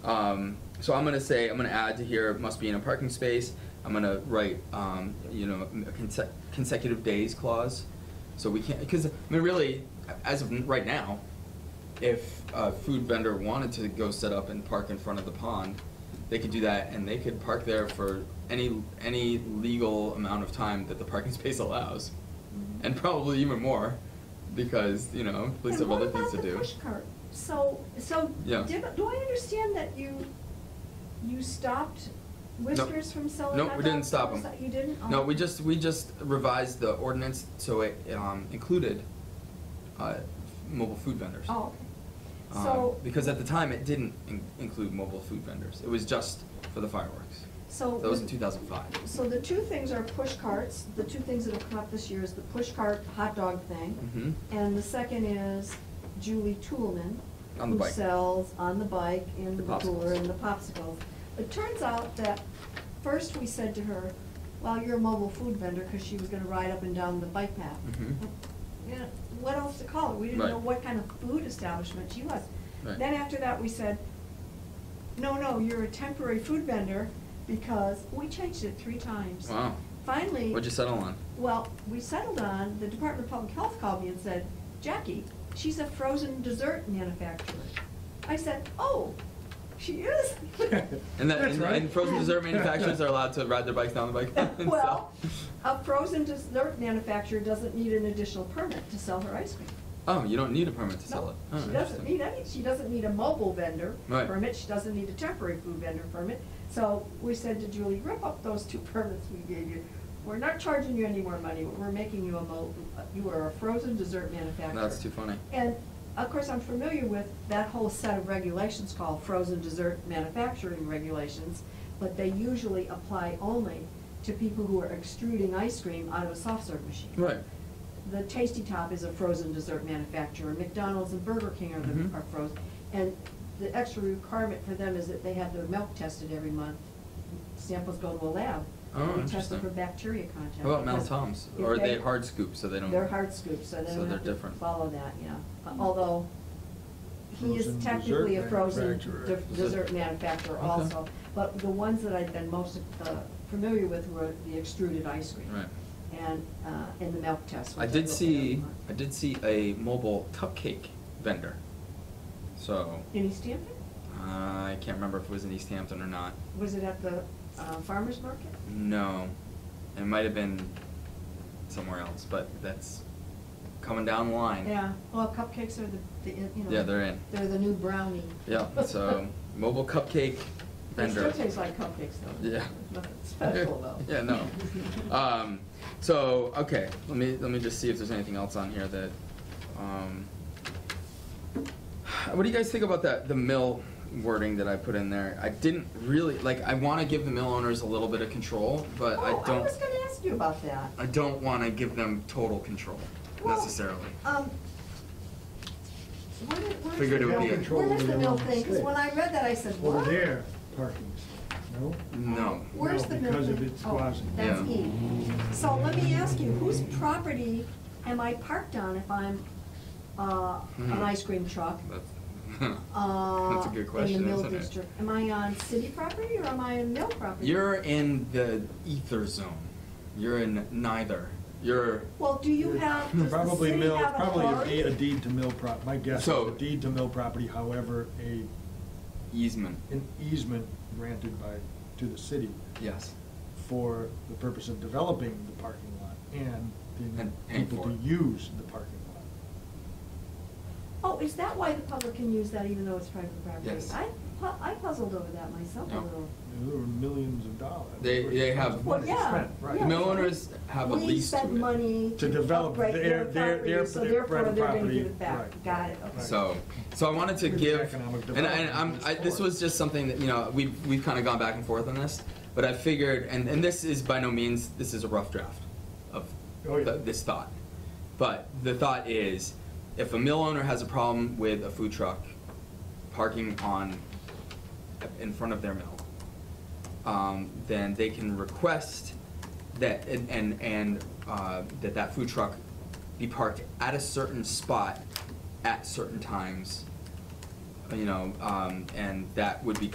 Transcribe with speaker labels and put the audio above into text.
Speaker 1: Um, so I'm gonna say I'm gonna add to here must be in a parking space. I'm gonna write um, you know a conse- consecutive days clause. So we can't because I mean really as of right now, if a food vendor wanted to go set up and park in front of the pond, they could do that and they could park there for any any legal amount of time that the parking space allows, and probably even more because you know police have other things to do.
Speaker 2: And what about the push cart? So, so,
Speaker 1: Yeah.
Speaker 2: did- do I understand that you, you stopped Whiskers from selling
Speaker 1: No,
Speaker 2: hot
Speaker 1: we didn't
Speaker 2: dogs?
Speaker 1: stop
Speaker 2: Was
Speaker 1: them.
Speaker 2: that- You didn't? Oh.
Speaker 1: No, we just, we just revised the ordinance so it, um, included, uh, mobile food vendors.
Speaker 2: Oh, okay.
Speaker 1: Um,
Speaker 2: So,
Speaker 1: Because at the time, it didn't in- include mobile food vendors, it was just for the fireworks.
Speaker 2: so.
Speaker 1: That was
Speaker 2: the-
Speaker 1: in two thousand five.
Speaker 2: So the two things are push carts, the two things that have come up this year is the push cart hot dog thing.
Speaker 1: Mhm.
Speaker 2: And the second is Julie Toolman.
Speaker 1: On the bike.
Speaker 2: Who sells on the bike in
Speaker 1: The
Speaker 2: the cooler
Speaker 1: popsicles.
Speaker 2: and the popsicles. It turns out that first we said to her, well, you're a mobile food vendor, because she was gonna ride up and down the bike path.
Speaker 1: Mhm.
Speaker 2: Yeah, what else to call it? We didn't
Speaker 1: Right.
Speaker 2: know what kind of food establishment she was.
Speaker 1: Right.
Speaker 2: Then after that, we said, no, no, you're a temporary food vendor, because we changed it three times.
Speaker 1: Wow.
Speaker 2: Finally.
Speaker 1: What'd you settle on?
Speaker 2: Well, we settled on, the Department of Public Health called me and said, Jackie, she's a frozen dessert manufacturer. I said, oh, she is?
Speaker 1: And that,
Speaker 3: That's
Speaker 1: and,
Speaker 3: right.
Speaker 1: and frozen dessert manufacturers are allowed to ride their bikes down the bike path and
Speaker 2: Well,
Speaker 1: sell.
Speaker 2: a frozen dessert manufacturer doesn't need an additional permit to sell her ice cream.
Speaker 1: Oh, you don't need a permit to sell
Speaker 2: No,
Speaker 1: it? Oh,
Speaker 2: she doesn't
Speaker 1: interesting.
Speaker 2: need any, she doesn't need a mobile vendor
Speaker 1: Right.
Speaker 2: permit, she doesn't need a temporary food vendor permit. So we said to Julie, rip up those two permits we gave you. We're not charging you any more money, we're making you a mo, you are a frozen dessert manufacturer.
Speaker 1: That's too funny.
Speaker 2: And of course, I'm familiar with that whole set of regulations called frozen dessert manufacturing regulations, but they usually apply only to people who are extruding ice cream out of a soft serve machine.
Speaker 1: Right.
Speaker 2: The Tasty Top is a frozen dessert manufacturer, McDonald's and Burger King are
Speaker 1: Mhm.
Speaker 2: the, are frozen. And the extra requirement for them is that they have their milk tested every month. Samples go to a lab.
Speaker 1: Oh,
Speaker 2: and we test
Speaker 1: interesting.
Speaker 2: them for bacteria content.
Speaker 1: How about Mel
Speaker 2: because
Speaker 1: Toms?
Speaker 2: if
Speaker 1: Or are they hard scoop, so they don't?
Speaker 2: They're hard scoops, so they
Speaker 1: so
Speaker 2: don't
Speaker 1: they're
Speaker 2: have to
Speaker 1: different.
Speaker 2: follow that, yeah. Although, he
Speaker 3: Frozen
Speaker 2: is
Speaker 3: dessert
Speaker 2: technically a frozen
Speaker 3: manufacturer.
Speaker 2: de-
Speaker 3: Is
Speaker 1: it-
Speaker 2: dessert manufacturer
Speaker 1: Okay.
Speaker 2: also. But the ones that I've been most uh, familiar with were the extruded ice cream.
Speaker 1: Right.
Speaker 2: And, uh, and the milk test.
Speaker 1: I
Speaker 2: which
Speaker 1: did
Speaker 2: looked at
Speaker 1: see,
Speaker 2: every month.
Speaker 1: I did see a mobile cupcake vendor. So,
Speaker 2: In East Hampton?
Speaker 1: I can't remember if it was in East Hampton or not.
Speaker 2: Was it at the uh, farmer's market?
Speaker 1: No, it might have been somewhere else, but that's coming down the line.
Speaker 2: Yeah, well, cupcakes are the, the, you know.
Speaker 1: Yeah, they're in.
Speaker 2: They're the new brownie.
Speaker 1: Yeah, so mobile cupcake
Speaker 2: They
Speaker 1: vendor.
Speaker 2: still taste like cupcakes though.
Speaker 1: Yeah.
Speaker 2: Nothing special though.
Speaker 1: Yeah, no. Um, so, okay, let me, let me just see if there's anything else on here that, um, what do you guys think about that, the mill wording that I put in there? I didn't really, like, I wanna give the mill owners a little bit of control, but I
Speaker 2: Oh, I
Speaker 1: don't,
Speaker 2: was gonna ask you about that.
Speaker 1: I don't wanna give them total control
Speaker 2: Well,
Speaker 1: necessarily.
Speaker 2: Um, where did- where is
Speaker 1: Figured
Speaker 2: the
Speaker 1: it would
Speaker 2: mill-
Speaker 1: be a-
Speaker 2: Where does the mill thing, because when I read that, I said, what?
Speaker 3: Over there, parking, no?
Speaker 1: No.
Speaker 2: Where's
Speaker 3: No,
Speaker 2: the mill thing?
Speaker 3: because of its
Speaker 2: Oh,
Speaker 3: crossing.
Speaker 2: That's
Speaker 1: Yeah.
Speaker 2: E. So let me ask you, whose property am I parked on if I'm, uh, an
Speaker 1: Hmm.
Speaker 2: ice cream truck?
Speaker 1: That's,
Speaker 2: Uh,
Speaker 1: that's a good question,
Speaker 2: In the mill
Speaker 1: isn't it?
Speaker 2: district, am I on city property or am I on mill property?
Speaker 1: You're in the ether zone. You're in neither. You're
Speaker 2: Well, do you have, does the
Speaker 3: Probably
Speaker 2: city
Speaker 3: mill,
Speaker 2: have authority?
Speaker 3: probably a deed, a deed to mill prop, my guess is
Speaker 1: So-
Speaker 3: a deed to mill property, however, a,
Speaker 1: easement.
Speaker 3: an easement granted by, to the city
Speaker 1: Yes.
Speaker 3: for the purpose of developing the parking lot and
Speaker 1: And
Speaker 3: the
Speaker 1: paying
Speaker 3: people
Speaker 1: for
Speaker 3: to
Speaker 1: it.
Speaker 3: use the parking lot.
Speaker 2: Oh, is that why the public can use that even though it's private property?
Speaker 1: Yes.
Speaker 2: I, pu- I puzzled over that myself a
Speaker 1: Yeah.
Speaker 2: little.
Speaker 3: There were millions of dollars.
Speaker 1: They- they have-
Speaker 2: Well, yeah.
Speaker 3: Spent,
Speaker 2: yeah.
Speaker 3: Right.
Speaker 1: Mill owners have a
Speaker 2: We
Speaker 1: lease to
Speaker 2: spent
Speaker 1: it.
Speaker 2: money
Speaker 3: To
Speaker 2: to
Speaker 3: develop
Speaker 2: upgrade their
Speaker 3: their- their- their
Speaker 2: property, so
Speaker 3: parti-
Speaker 2: therefore they're
Speaker 3: private
Speaker 2: gonna
Speaker 3: property,
Speaker 2: give it back.
Speaker 3: right.
Speaker 2: Got it, okay.
Speaker 3: Right.
Speaker 1: So, so I wanted to
Speaker 3: Really
Speaker 1: give,
Speaker 3: economic
Speaker 1: and I, and I'm,
Speaker 3: development
Speaker 1: I, this was just something that, you know, we've, we've kind of gone back and forth on this, but I figured, and, and this is by no means, this is a rough draft of
Speaker 3: Oh, yeah.
Speaker 1: th- this thought. But the thought is, if a mill owner has a problem with a food truck parking on, in front of their mill, um, then they can request that, and, and, and, uh, that that food truck be parked at a certain spot at certain times, you know, um, and that would be